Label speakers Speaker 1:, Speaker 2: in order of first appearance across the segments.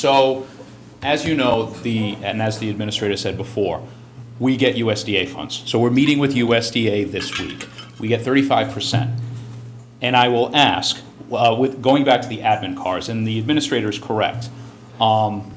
Speaker 1: So, as you know, the, and as the administrator said before, we get USDA funds. So we're meeting with USDA this week. We get thirty-five percent. And I will ask, uh, with, going back to the admin cars, and the administrator is correct, um,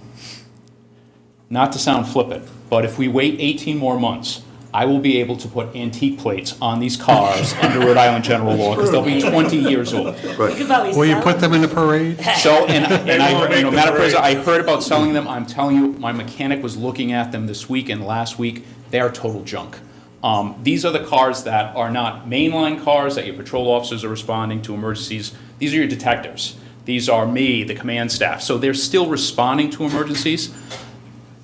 Speaker 1: not to sound flippant, but if we wait 18 more months, I will be able to put antique plates on these cars under Rhode Island general law, because they'll be 20 years old.
Speaker 2: You could probably
Speaker 3: Will you
Speaker 2: sell
Speaker 3: put them in the parade?
Speaker 1: So, and, and
Speaker 4: won't
Speaker 1: I, you know,
Speaker 4: make the
Speaker 1: Madam President, I heard about selling them, I'm telling you, my mechanic was looking at them this week and last week, they are total junk. Um, these are the cars that are not mainline cars that your patrol officers are responding to emergencies, these are your detectives. These are me, the command staff, so they're still responding to emergencies.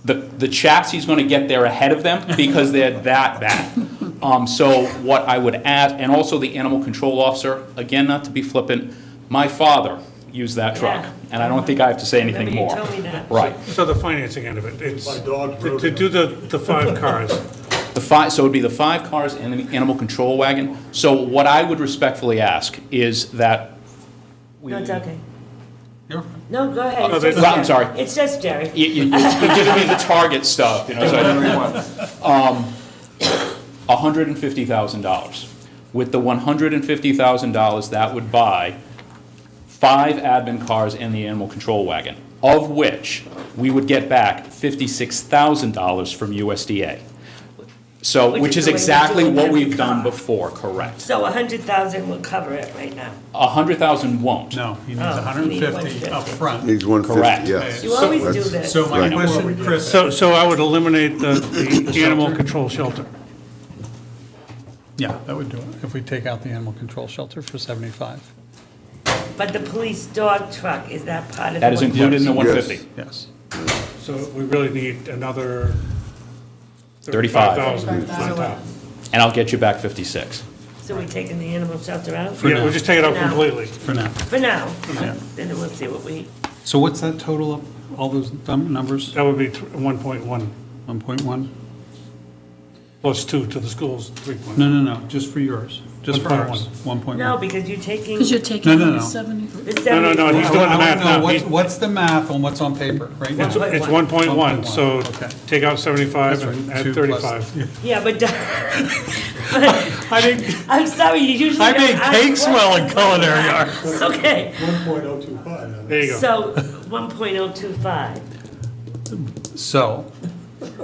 Speaker 1: The, the chassis is gonna get there ahead of them because they're that bad. Um, so what I would add, and also the animal control officer, again, not to be flippant, my father used that truck.
Speaker 2: Yeah.
Speaker 1: And I don't think I have to say anything
Speaker 2: Remember
Speaker 1: more.
Speaker 2: you told me that.
Speaker 1: Right.
Speaker 4: So the financing end of it, it's,
Speaker 5: My dog
Speaker 4: to
Speaker 5: wrote
Speaker 4: to
Speaker 5: it.
Speaker 4: do the, the five cars,
Speaker 1: The five, so it'd be the five cars and the animal control wagon. So what I would respectfully ask is that we.
Speaker 2: No, it's okay.
Speaker 3: You're-
Speaker 2: No, go ahead.
Speaker 4: Oh,
Speaker 2: It's
Speaker 4: they-
Speaker 2: just
Speaker 1: Well, I'm
Speaker 2: Jerry.
Speaker 1: sorry.
Speaker 2: It's just Jerry.
Speaker 1: You, you, you're giving me the target stuff, you know, so I didn't really want. Um, hundred and fifty thousand dollars. With the one hundred and fifty thousand dollars, that would buy five admin cars and the animal control wagon, of which we would get back fifty-six thousand dollars from USDA. So,
Speaker 2: Which
Speaker 1: which
Speaker 2: is
Speaker 1: is
Speaker 2: the way they
Speaker 1: exactly
Speaker 2: do it
Speaker 1: what
Speaker 2: every
Speaker 1: we've done
Speaker 2: car.
Speaker 1: before, correct.
Speaker 2: So a hundred thousand will cover it right now.
Speaker 1: A hundred thousand won't.
Speaker 3: No, he needs
Speaker 2: Oh, he needs
Speaker 3: 150 up
Speaker 2: 150.
Speaker 3: front.
Speaker 6: Needs 150,
Speaker 1: Correct.
Speaker 6: yes.
Speaker 2: You always do
Speaker 6: That's-
Speaker 2: this.
Speaker 3: So my
Speaker 6: Right.
Speaker 3: question, Chris,
Speaker 4: so, so I would eliminate the, the animal control shelter.
Speaker 3: yeah, that would do it, if we take out the animal control shelter for 75,
Speaker 2: But the police dog truck, is that part of the?
Speaker 1: That is
Speaker 2: one-
Speaker 1: included in the one
Speaker 6: Yes.
Speaker 1: fifty.
Speaker 3: yes.
Speaker 4: So we really need another
Speaker 1: Thirty-five.
Speaker 4: thirty-five thousand on top.
Speaker 1: And I'll get you back fifty-six.
Speaker 2: So we taking the animal shelter out?
Speaker 4: Yeah, we'll just take it out
Speaker 2: For now.
Speaker 4: completely.
Speaker 3: For now.
Speaker 2: For now.
Speaker 3: now.
Speaker 2: Then we'll see what we,
Speaker 3: So what's that total of all those num- numbers?
Speaker 4: That would be one point one,
Speaker 3: 1.1?
Speaker 4: plus two to the schools, three point.
Speaker 3: No, no, no, just for yours, just for ours, 1.1.
Speaker 2: no, because you're taking
Speaker 7: Because
Speaker 2: the
Speaker 7: you're taking
Speaker 3: No, no, no.
Speaker 7: the 70.
Speaker 4: No, no,
Speaker 2: seventy.
Speaker 4: no, he's
Speaker 3: I
Speaker 4: doing the
Speaker 3: wanna
Speaker 4: math
Speaker 3: know
Speaker 4: now.
Speaker 3: what's-
Speaker 4: He-
Speaker 3: What's the math on what's on paper right now?
Speaker 4: It's it's one point one,
Speaker 3: 1.1,
Speaker 4: so
Speaker 3: okay.
Speaker 4: take out seventy-five
Speaker 3: That's right,
Speaker 4: and
Speaker 3: two
Speaker 4: add
Speaker 3: plus-
Speaker 4: thirty-five.
Speaker 2: Yeah, but,
Speaker 3: I think,
Speaker 2: I'm sorry, you usually.
Speaker 3: I
Speaker 2: don't
Speaker 3: made
Speaker 2: ask
Speaker 3: cakes well in
Speaker 2: questions like
Speaker 3: culinary
Speaker 2: that.
Speaker 3: art.
Speaker 2: It's okay.
Speaker 5: One point oh two five.
Speaker 4: There you go.
Speaker 2: So one point oh two five.
Speaker 3: So,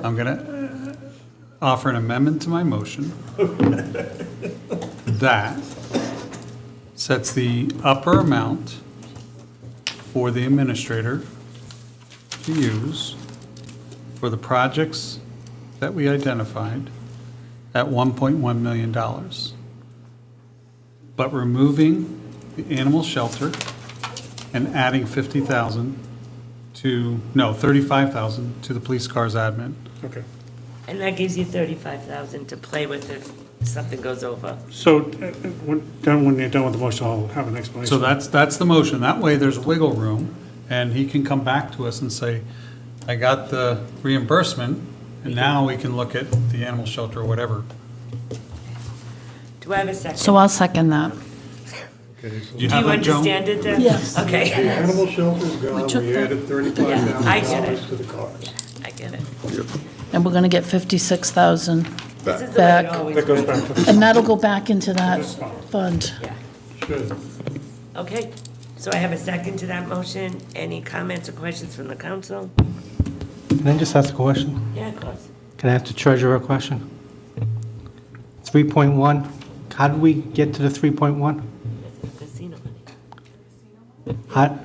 Speaker 3: I'm going to offer an amendment to my motion that sets the upper amount for the administrator to use for the projects that we identified at $1.1 million. But removing the animal shelter and adding 50,000 to, no, 35,000 to the police cars admin.
Speaker 4: Okay.
Speaker 2: And that gives you thirty-five thousand to play with if something goes over.
Speaker 4: So, uh, uh, when, done, when you're done with the motion, I'll have an explanation.
Speaker 3: So that's, that's the motion. That way, there's wiggle room, and he can come back to us and say, I got the reimbursement, and now we can look at the animal shelter or whatever.
Speaker 2: Do I have a second?
Speaker 7: So I'll second that.
Speaker 3: Do you
Speaker 2: Do
Speaker 3: have
Speaker 2: you
Speaker 3: that, Joan?
Speaker 2: understand it then?
Speaker 7: Yes.
Speaker 5: The
Speaker 2: Okay,
Speaker 5: animal shelter's
Speaker 7: We
Speaker 5: gone,
Speaker 7: took
Speaker 5: we
Speaker 7: the-
Speaker 5: added thirty-five
Speaker 2: I
Speaker 5: thousand
Speaker 2: get it.
Speaker 5: dollars to the cars.
Speaker 2: I get it.
Speaker 7: And we're going to get 56,000.
Speaker 2: This is the way it
Speaker 7: Back.
Speaker 2: always,
Speaker 4: That goes back to the
Speaker 7: And that'll go back into that fund.
Speaker 2: yeah.
Speaker 5: Should.
Speaker 2: Okay, so I have a second to that motion. Any comments or questions from the council?
Speaker 8: Can I just ask a question?
Speaker 2: Yeah, of course.
Speaker 8: Can I ask the treasurer a question? 3.1, how did we get to the 3.1?
Speaker 2: Casino money.
Speaker 8: How,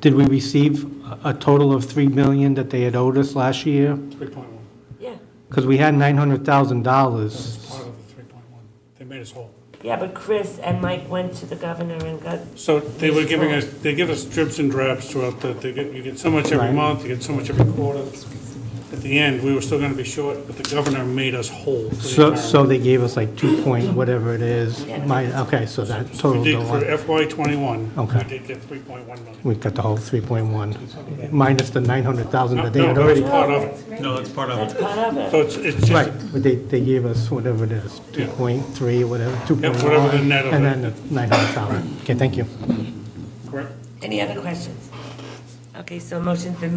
Speaker 8: did we receive a- a total of 3 million that they had owed us last year?
Speaker 4: three point one,
Speaker 2: Yeah,
Speaker 8: Because we had $900,000.
Speaker 4: part of the three point one. They made us whole.
Speaker 2: yeah, but Chris and Mike went to the governor and got,
Speaker 4: So they were giving us, they give us drips and drabs throughout the, they get, you get so much every month, you get so much every quarter. At the end, we were still gonna be short, but the governor made us whole. for the
Speaker 8: So,
Speaker 4: entire-
Speaker 8: so they gave us like 2 point whatever it is. My, okay, so that
Speaker 4: We
Speaker 8: totaled the
Speaker 4: did,
Speaker 8: one.
Speaker 4: for FY twenty-one, we
Speaker 8: Okay.
Speaker 4: did get three point one million.
Speaker 8: We've got the whole 3.1, minus the 900,000
Speaker 4: No,
Speaker 8: that they
Speaker 4: no,
Speaker 8: had
Speaker 4: that's
Speaker 8: already.
Speaker 4: part of it.
Speaker 3: No, that's part of
Speaker 2: that's
Speaker 3: it.
Speaker 2: part of it.
Speaker 4: So it's, it's just,
Speaker 8: Right, but they, they gave us whatever it is, 2.3, whatever, 2.1.
Speaker 4: whatever the net of
Speaker 8: And
Speaker 4: it.
Speaker 8: then the 900,000. Okay, thank you.
Speaker 4: correct?
Speaker 2: Any other questions? Okay, so motion's been made